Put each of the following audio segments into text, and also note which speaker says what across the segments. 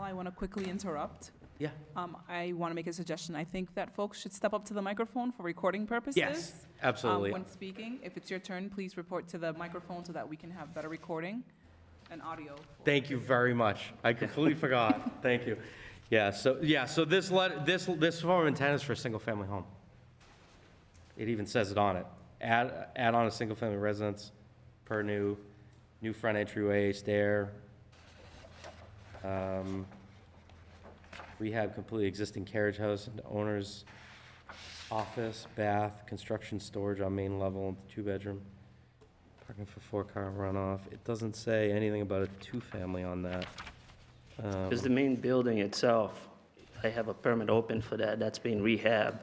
Speaker 1: I want to quickly interrupt.
Speaker 2: Yeah.
Speaker 1: Um, I want to make a suggestion. I think that folks should step up to the microphone for recording purposes.
Speaker 2: Yes,
Speaker 1: Um,
Speaker 2: absolutely.
Speaker 1: when speaking, if it's your turn, please report to the microphone so that we can have better recording and audio.
Speaker 2: Thank you very much. I completely forgot. Thank you. Yeah, so, yeah, so this let this, this form of intent is for a single-family home. It even says it on it. Add, add on a single-family residence per new, new front entryway, stair. Um, Rehab completely existing carriage house and owner's office, bath, construction storage on main level, and two-bedroom. Parking for four-car runoff. It doesn't say anything about a two-family on that. Um,
Speaker 3: Because the main building itself, I have a permit open for that, that's being rehabbed,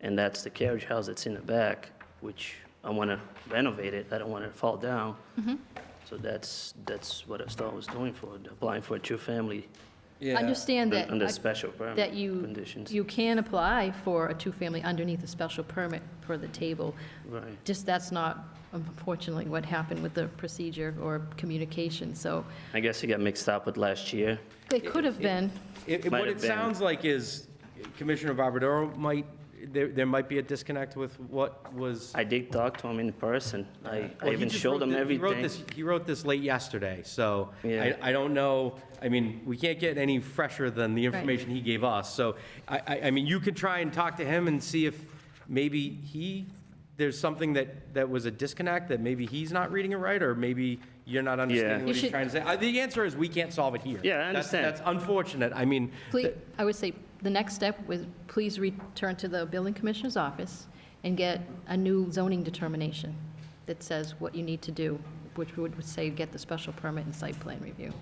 Speaker 3: and that's the carriage house that's in the back, which I want to renovate it, I don't want it to fall down.
Speaker 4: Mm-hmm.
Speaker 3: So that's, that's what I thought was doing for, it, applying for a two-family
Speaker 4: Understand that,
Speaker 3: under special permit
Speaker 4: that you,
Speaker 3: conditions.
Speaker 4: you can apply for a two-family underneath a special permit per the table.
Speaker 3: Right.
Speaker 4: Just that's not unfortunately what happened with the procedure or communication, so
Speaker 3: I guess it got mixed up with last year.
Speaker 4: they could have been.
Speaker 2: It- it-
Speaker 3: Might
Speaker 2: What
Speaker 3: have
Speaker 2: it
Speaker 3: been.
Speaker 2: sounds like is Commissioner Barbadoro might, there, there might be a disconnect with what was.
Speaker 3: I did talk to him in person, I,
Speaker 2: Well,
Speaker 3: I
Speaker 2: he
Speaker 3: even
Speaker 2: just
Speaker 3: showed
Speaker 2: wrote
Speaker 3: him
Speaker 2: thi- he wrote
Speaker 3: everything.
Speaker 2: this- He wrote this late yesterday, so I,
Speaker 3: Yeah.
Speaker 2: I don't know, I mean, we can't get any fresher than the information he gave us. So I, I, I mean, you could try and talk to him and see if maybe he, there's something that, that was a disconnect, that maybe he's not reading it right, or maybe you're not understanding
Speaker 3: You
Speaker 2: what he's
Speaker 4: should-
Speaker 2: trying to say. Uh, The answer is, we can't solve it here.
Speaker 3: Yeah, I
Speaker 2: That's-
Speaker 3: understand.
Speaker 2: That's unfortunate, I mean.
Speaker 4: Please,
Speaker 2: th-
Speaker 4: I would say, the next step was, please return to the building commissioner's office and get a new zoning determination that says what you need to do, which would say get the special permit and site plan review.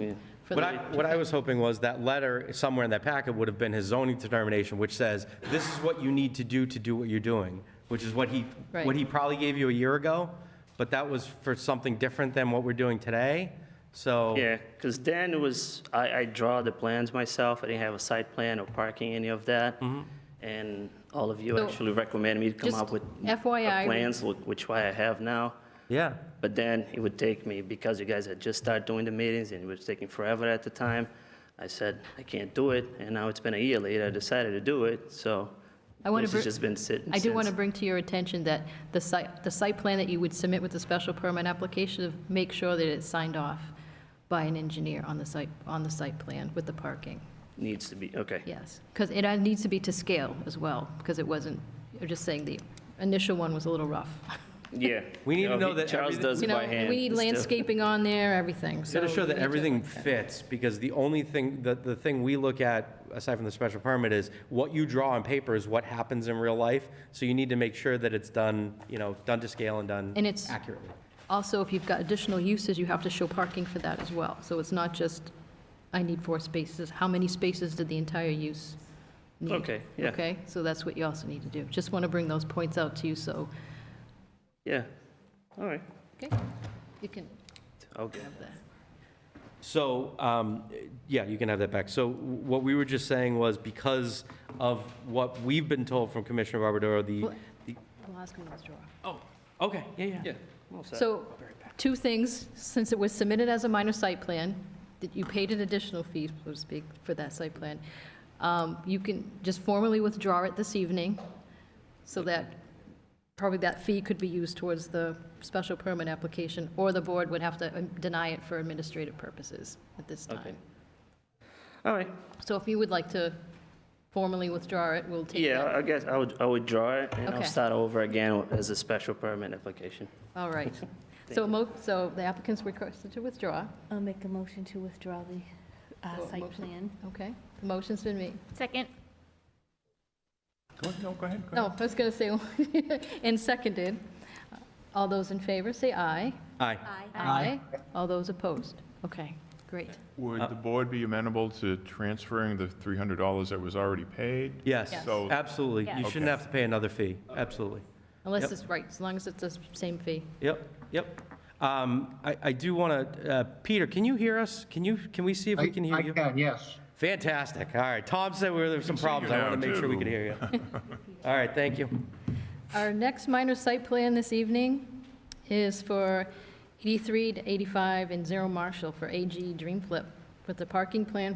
Speaker 4: for
Speaker 2: What
Speaker 4: the
Speaker 2: I, what I was hoping was that letter, somewhere in that packet, would have been his zoning determination, which says, this is what you need to do to do what you're doing, which is what he, what
Speaker 4: Right.
Speaker 2: he probably gave you a year ago, but that was for something different than what we're doing today, so.
Speaker 3: Yeah, because then it was, I, I draw the plans myself, I didn't have a site plan or parking, any of that.
Speaker 2: Mm-hmm.
Speaker 3: And all of you
Speaker 4: So,
Speaker 3: actually recommended me to come
Speaker 4: just
Speaker 3: up with a
Speaker 4: FYI.
Speaker 3: plans, wh- which why I have now.
Speaker 2: Yeah,
Speaker 3: But then it would take me, because you guys had just started doing the meetings and it was taking forever at the time, I said, I can't do it, and now it's been a year later, I decided to do it, so
Speaker 4: I wanna
Speaker 3: this has
Speaker 4: br-
Speaker 3: just been sitting
Speaker 4: I do want to
Speaker 3: since.
Speaker 4: bring to your attention that the site, the site plan that you would submit with the special permit application, make sure that it's signed off by an engineer on the site, on the site plan with the parking,
Speaker 3: Needs to be, okay.
Speaker 4: yes. Because it uh, needs to be to scale as well, because it wasn't, I'm just saying the initial one was a little rough.
Speaker 3: Yeah.
Speaker 2: We need
Speaker 3: You
Speaker 2: to know
Speaker 3: he-
Speaker 2: that
Speaker 3: Charles
Speaker 2: everything-
Speaker 3: does
Speaker 4: You
Speaker 3: it
Speaker 4: know,
Speaker 3: by hand.
Speaker 4: we
Speaker 3: It's
Speaker 4: need
Speaker 3: still-
Speaker 4: landscaping on there, everything, so.
Speaker 2: gotta show that
Speaker 4: we need to
Speaker 2: everything
Speaker 4: look at that.
Speaker 2: fits, because the only thing, the, the thing we look at, aside from the special permit, is what you draw on paper is what happens in real life, so you need to make sure that it's done, you know, done to scale and done
Speaker 4: And it's-
Speaker 2: accurately.
Speaker 4: Also, if you've got additional uses, you have to show parking for that as well. So it's not just, I need four spaces. How many spaces did the entire use need?
Speaker 3: Okay, yeah.
Speaker 4: Okay, so that's what you also need to do. Just want to bring those points out to you, so,
Speaker 3: Yeah, all right,
Speaker 4: okay, you can
Speaker 3: okay.
Speaker 4: have that.
Speaker 2: So, um, yeah, you can have that back. So what we were just saying was because of what we've been told from Commissioner Barbadoro, the,
Speaker 4: Well-
Speaker 2: the-
Speaker 4: We'll ask him to withdraw.
Speaker 2: oh, okay, yeah, yeah.
Speaker 4: So, two things, since it was submitted as a minor site plan, that you paid an additional fee, so to speak, for that site plan, um, you can just formally withdraw it this evening, so that, probably that fee could be used towards the special permit application, or the board would have to um, deny it for administrative purposes at this
Speaker 3: Okay.
Speaker 4: time.
Speaker 3: All right,
Speaker 4: So if you would like to formally withdraw it, we'll take
Speaker 3: yeah,
Speaker 4: that.
Speaker 3: I guess I would, I would draw it, and I'll
Speaker 4: Okay.
Speaker 3: start over again as a special permit application.
Speaker 4: All right. So, mo- so the applicant's requested to withdraw,
Speaker 5: I'll make a motion to withdraw the uh,
Speaker 4: Oh,
Speaker 5: site
Speaker 4: motion.
Speaker 5: plan.
Speaker 4: okay? The motion's been made.
Speaker 6: Second.
Speaker 4: No, I was going to say, and seconded. All those in favor, say aye.
Speaker 2: Aye.
Speaker 4: Aye. All those opposed? Okay, great.
Speaker 7: Would the board be amenable to transferring the $300 that was already paid?
Speaker 2: Yes,
Speaker 4: Yes.
Speaker 7: So-
Speaker 2: absolutely. You
Speaker 6: Yeah.
Speaker 2: shouldn't have to pay another fee, absolutely.
Speaker 4: Unless
Speaker 2: Yep.
Speaker 4: it's right, as long as it's the same fee.
Speaker 2: Yep, yep. Um, I, I do want to, Peter, can you hear us? Can you, can we see if we can hear you?
Speaker 8: I can, yes.
Speaker 2: Fantastic, all right. Tom said there were some
Speaker 7: see you
Speaker 2: problems. I want
Speaker 7: now,
Speaker 2: to make sure we
Speaker 7: too.
Speaker 2: could hear you. All right, thank you.
Speaker 4: Our next minor site plan this evening is for 83 to 85 and Zero Marshall for AG Dream Flip with the parking plan